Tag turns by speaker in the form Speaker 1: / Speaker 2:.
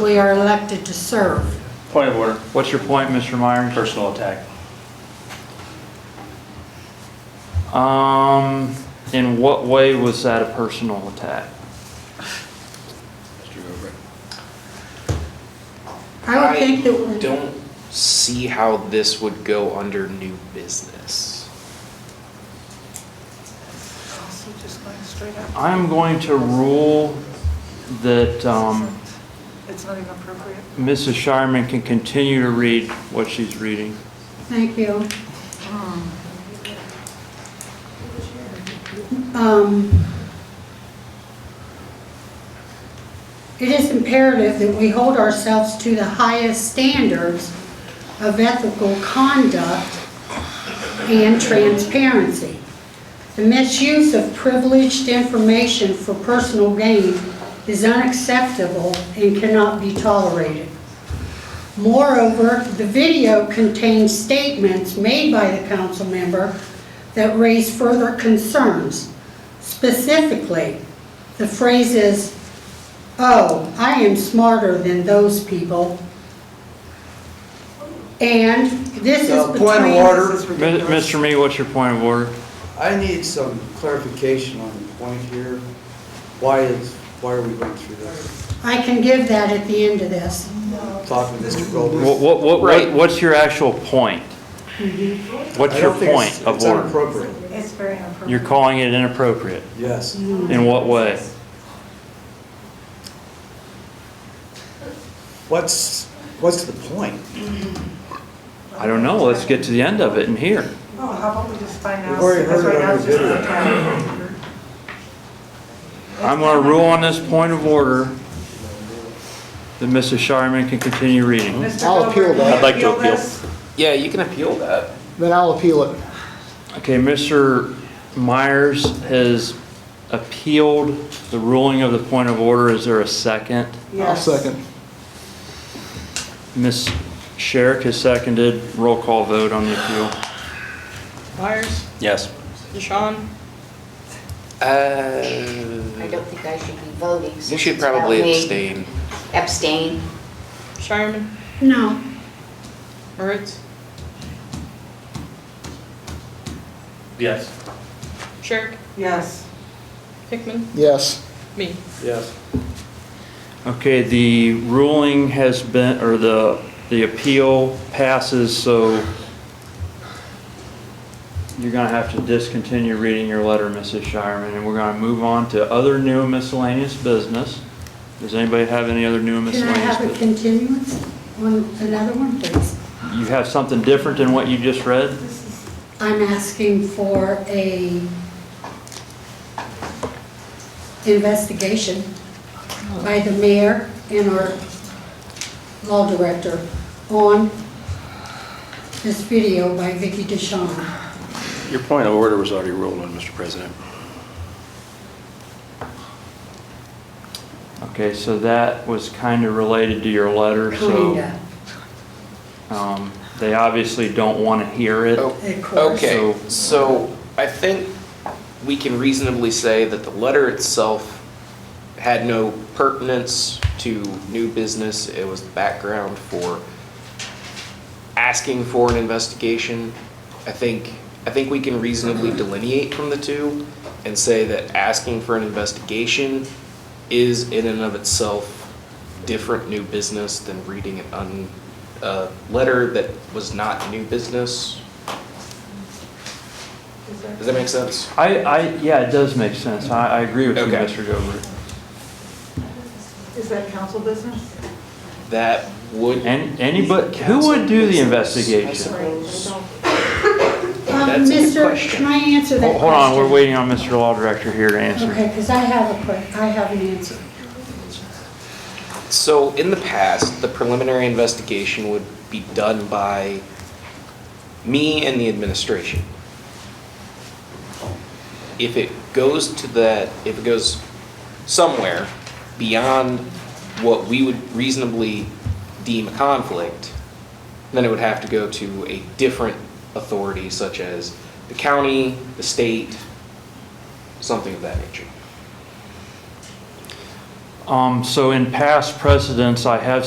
Speaker 1: We are elected to serve.
Speaker 2: Point of order,
Speaker 3: What's your point, Mr. Myers?
Speaker 2: personal attack.
Speaker 3: Um, in what way was that a personal attack?
Speaker 1: I would think that,
Speaker 4: don't see how this would go under new business.
Speaker 3: I'm going to rule that, um,
Speaker 5: It's not even appropriate.
Speaker 3: Mrs. Shireman can continue to read what she's reading.
Speaker 1: thank you. Um, It is imperative that we hold ourselves to the highest standards of ethical conduct and transparency. The misuse of privileged information for personal gain is unacceptable and cannot be tolerated. Moreover, the video contains statements made by the council member that raise further concerns. Specifically, the phrases, "Oh, I am smarter than those people," and "This is
Speaker 6: So,
Speaker 1: between..."
Speaker 6: point of order,
Speaker 3: Mi- Mr. Me, what's your point of order?
Speaker 6: I need some clarification on the point here. Why is, why are we going through this?
Speaker 1: I can give that at the end of this.
Speaker 6: Talking to Mr.
Speaker 3: What,
Speaker 6: Goldberg.
Speaker 3: what, what,
Speaker 4: Right.
Speaker 3: what's your actual point? What's
Speaker 6: I
Speaker 3: your
Speaker 6: don't think
Speaker 3: point
Speaker 6: it's-
Speaker 3: of
Speaker 6: It's
Speaker 3: order?
Speaker 6: inappropriate,
Speaker 5: It's very inappropriate.
Speaker 3: You're calling it inappropriate.
Speaker 6: yes.
Speaker 3: In what way?
Speaker 6: What's, what's the point?
Speaker 3: I don't know. Let's get to the end of it and hear.
Speaker 5: Well, Oh, how about we just find out?
Speaker 6: We've already
Speaker 5: because
Speaker 6: heard it
Speaker 5: right now
Speaker 6: on
Speaker 5: it's
Speaker 6: the
Speaker 5: just
Speaker 6: video.
Speaker 5: a tab.
Speaker 3: I'm going to rule on this point of order that Mrs. Shireman can continue reading.
Speaker 5: Mr.
Speaker 7: Hmm? I'll appeal
Speaker 5: Goldberg, can
Speaker 7: that.
Speaker 5: you
Speaker 2: I'd like to appeal.
Speaker 5: this?
Speaker 4: Yeah, you can appeal that.
Speaker 7: Then I'll appeal it.
Speaker 3: Okay, Mr. Myers has appealed the ruling of the point of order. Is there a second?
Speaker 7: I'll
Speaker 5: Yes.
Speaker 7: second.
Speaker 3: Ms. Sherrick has seconded. Roll call vote on the appeal.
Speaker 8: Myers,
Speaker 2: Yes.
Speaker 8: Deshawn,
Speaker 4: Uh,
Speaker 9: I don't think I should be voting. since
Speaker 4: you should
Speaker 9: it's about
Speaker 4: probably
Speaker 9: me.
Speaker 4: abstain.
Speaker 9: Abstain.
Speaker 8: Shireman,
Speaker 1: No,
Speaker 8: Moritz,
Speaker 2: Yes.
Speaker 8: Sherrick,
Speaker 5: Yes.
Speaker 8: Hickman,
Speaker 7: Yes.
Speaker 8: me.
Speaker 6: Yes.
Speaker 3: Okay, the ruling has been, or the, the appeal passes, so you're gonna have to discontinue reading your letter, Mrs. Shireman, and we're gonna move on to other new and miscellaneous business. Does anybody have any other new and
Speaker 1: can I
Speaker 3: miscellaneous?
Speaker 1: have a
Speaker 3: business?
Speaker 1: continuance on another one, please?
Speaker 3: You have something different than what you just read?
Speaker 1: I'm asking for a investigation by the mayor and our law director on this video by Vicky DeShawn.
Speaker 2: Your point of order was already ruled on, Mr. President.
Speaker 3: Okay, so that was kinda related to your letter, so,
Speaker 1: Kinda,
Speaker 3: um, they obviously don't wanna hear it.
Speaker 4: Oh,
Speaker 1: of course.
Speaker 4: Okay,
Speaker 3: So-
Speaker 4: so I think we can reasonably say that the letter itself had no pertinence to new business. It was the background for asking for an investigation. I think, I think we can reasonably delineate from the two and say that asking for an investigation is in and of itself different new business than reading an un, a letter that was not new business. Does that make sense?
Speaker 3: I, I, yeah, it does make sense. I, I agree with you,
Speaker 4: Okay.
Speaker 3: Mr. Gilbert.
Speaker 5: Is that council business?
Speaker 4: That would.
Speaker 3: And anybody, who would do the
Speaker 4: I
Speaker 3: investigation?
Speaker 4: suppose.
Speaker 1: Um,
Speaker 4: That's a good
Speaker 1: Mr.,
Speaker 4: question.
Speaker 1: can I answer that
Speaker 3: Hold
Speaker 1: question?
Speaker 3: hold on, we're waiting on Mr. Law Director here to answer.
Speaker 1: Okay, because I have a, que- I have an answer.
Speaker 4: So in the past, the preliminary investigation would be done by me and the administration. If it goes to that, if it goes somewhere beyond what we would reasonably deem a conflict, then it would have to go to a different authority such as the county, the state, something of that nature.
Speaker 3: Um, so in past precedents, I have